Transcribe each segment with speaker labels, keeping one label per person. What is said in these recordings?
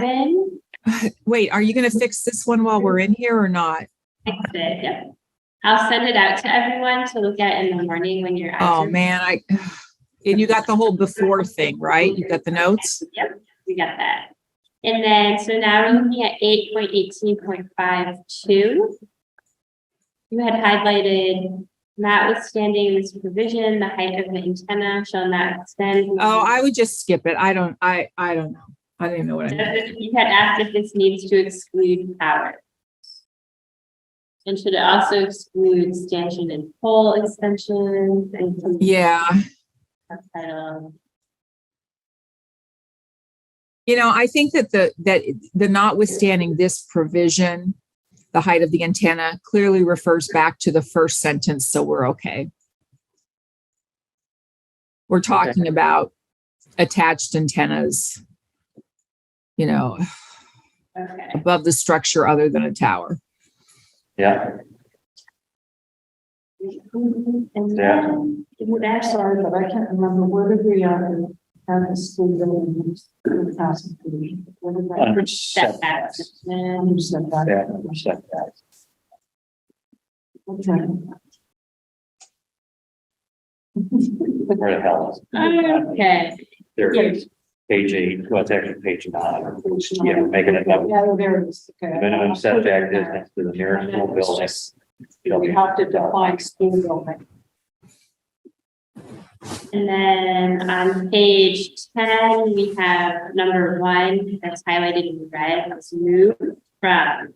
Speaker 1: seven.
Speaker 2: Wait, are you going to fix this one while we're in here or not?
Speaker 1: That's it, yep. I'll send it out to everyone to look at in the morning when you're.
Speaker 2: Oh, man, I, and you got the whole before thing, right? You got the notes?
Speaker 1: Yep, we got that. And then, so now we're looking at eight point eighteen point five two. You had highlighted notwithstanding this provision, the height of the antenna shall not extend.
Speaker 2: Oh, I would just skip it. I don't, I, I don't know. I don't even know what I meant.
Speaker 1: You had asked if this needs to exclude power. And should it also exclude stanchion and pole extensions and?
Speaker 2: Yeah,
Speaker 1: subtitles?
Speaker 2: you know, I think that the, that the notwithstanding this provision, the height of the antenna clearly refers back to the first sentence, so we're okay. We're talking about attached antennas, you know,
Speaker 1: Okay,
Speaker 2: above the structure other than a tower.
Speaker 3: Yeah,
Speaker 4: And
Speaker 3: Yeah.
Speaker 4: then, it would ask, sorry, but I can't remember, where did we, um, have the school building? Thousand feet. What did that-
Speaker 3: under
Speaker 1: setbacks.
Speaker 3: setbacks.
Speaker 4: And you said that.
Speaker 3: Yeah, under setbacks.
Speaker 4: Okay.
Speaker 3: Where the hell is?
Speaker 4: Um,
Speaker 3: it?
Speaker 1: Okay,
Speaker 3: There it is. Page eight, well, it's actually page nine. Yeah, making it up.
Speaker 4: Yeah, there it is. Okay.
Speaker 3: Minimum setback distance to the nearest school building.
Speaker 4: We have to define school building.
Speaker 1: and then on page ten, we have number one that's highlighted in red, let's move from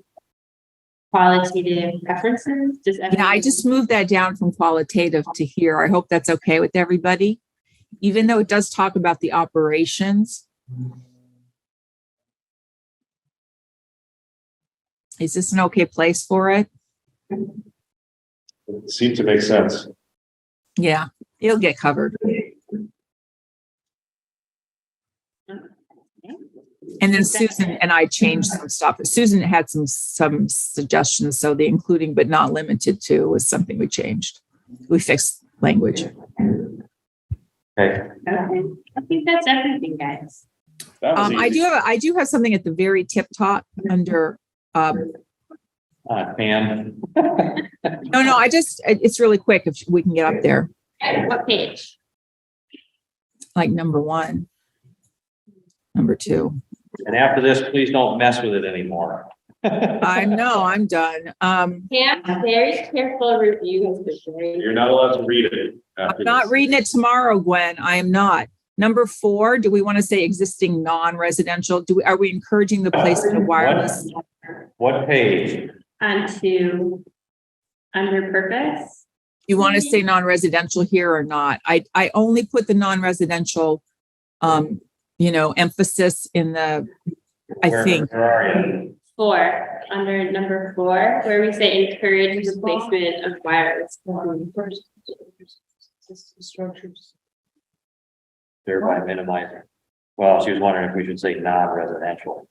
Speaker 1: qualitative preferences. Does
Speaker 2: Yeah, I
Speaker 1: everyone-
Speaker 2: just moved that down from qualitative to here. I hope that's okay with everybody. Even though it does talk about the operations. Is this an okay place for it?
Speaker 5: It Seemed to make sense.
Speaker 2: Yeah, it'll get covered. And then Susan and I changed some stuff. Susan had some, some suggestions, so the including but not limited to was something we changed. We fixed language.
Speaker 3: Okay.
Speaker 1: Okay, I think that's everything, guys.
Speaker 5: That was
Speaker 2: Um, I
Speaker 5: easy.
Speaker 2: do have, I do have something at the very tip top under, um,
Speaker 3: Uh, Pam,
Speaker 2: no, no, I just, it- it's really quick if we can get up there,
Speaker 1: What page?
Speaker 2: like number one. Number two.
Speaker 3: and after this, please don't mess with it anymore.
Speaker 2: I know, I'm done. Um,
Speaker 1: Pam, very careful review of the grade.
Speaker 5: You're not allowed to read it. after
Speaker 2: I'm not
Speaker 5: this.
Speaker 2: reading it tomorrow, Gwen. I am not. Number four, do we want to say existing non-residential? Do we, are we encouraging the placement of wireless?
Speaker 3: What page?
Speaker 1: Onto under purpose.
Speaker 2: You want to say non-residential here or not? I, I only put the non-residential, um, you know, emphasis in the, I
Speaker 3: Where-
Speaker 2: think,
Speaker 3: Where are you?
Speaker 1: Four, under number four, where we say encourage the placement of wireless.
Speaker 4: First, existing Structures.
Speaker 3: Thereby minimizing. Well, she was wondering if we should say non-residential.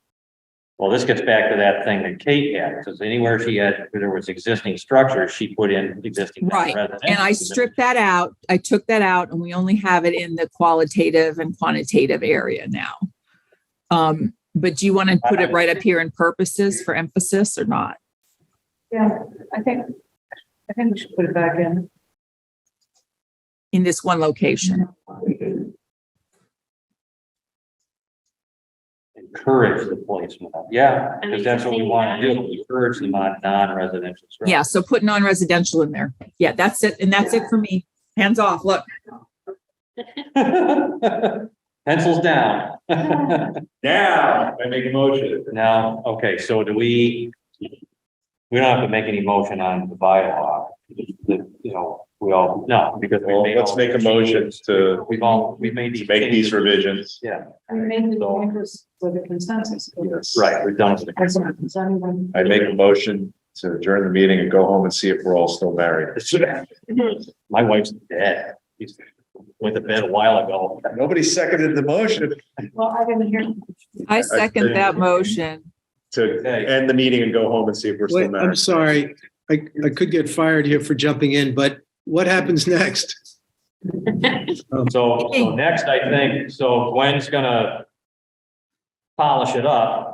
Speaker 3: Well, this gets back to that thing that Kate had, because anywhere she had, there was existing structures, she put in existing.
Speaker 2: Right,
Speaker 3: non-residential.
Speaker 2: And I stripped that out. I took that out and we only have it in the qualitative and quantitative area now. Um, but do you want to put it right up here in purposes for emphasis or not?
Speaker 4: Yeah, I think, I think we should put it back in.
Speaker 2: In this one location?
Speaker 3: Encourage the placement of, yeah,
Speaker 1: I mean,
Speaker 3: because that's what we
Speaker 1: something
Speaker 3: want to
Speaker 1: non-
Speaker 3: do, encourage the mon- non-residential. structure.
Speaker 2: Yeah, so put non-residential in there. Yeah, that's it. And that's it for me. Hands off. Look,
Speaker 3: Pencils down.
Speaker 5: Now, I make a motion.
Speaker 3: Now, okay, so do we? We don't have to make any motion on the bylaw, the- you know, we all, no, because. we
Speaker 5: Well,
Speaker 3: made
Speaker 5: let's
Speaker 3: all-
Speaker 5: make a motion to
Speaker 3: We've all, we made
Speaker 5: to
Speaker 3: these.
Speaker 5: make these revisions.
Speaker 3: Yeah,
Speaker 4: I made the
Speaker 3: So-
Speaker 4: changes with a consensus. but-
Speaker 3: right, we've done it.
Speaker 4: As a- as anyone-
Speaker 5: I make a motion to adjourn the meeting and go home and see if we're all still married.
Speaker 3: My wife's dead. She's Went to bed a while ago.
Speaker 5: Nobody seconded the motion
Speaker 4: Well, I didn't hear.
Speaker 2: I second that motion.
Speaker 5: to end the meeting and go home and see if we're still
Speaker 6: Wait,
Speaker 5: married.
Speaker 6: I'm sorry, I, I could get fired here for jumping in, but what happens next?
Speaker 3: So, so next, I think, so Gwen's gonna polish it up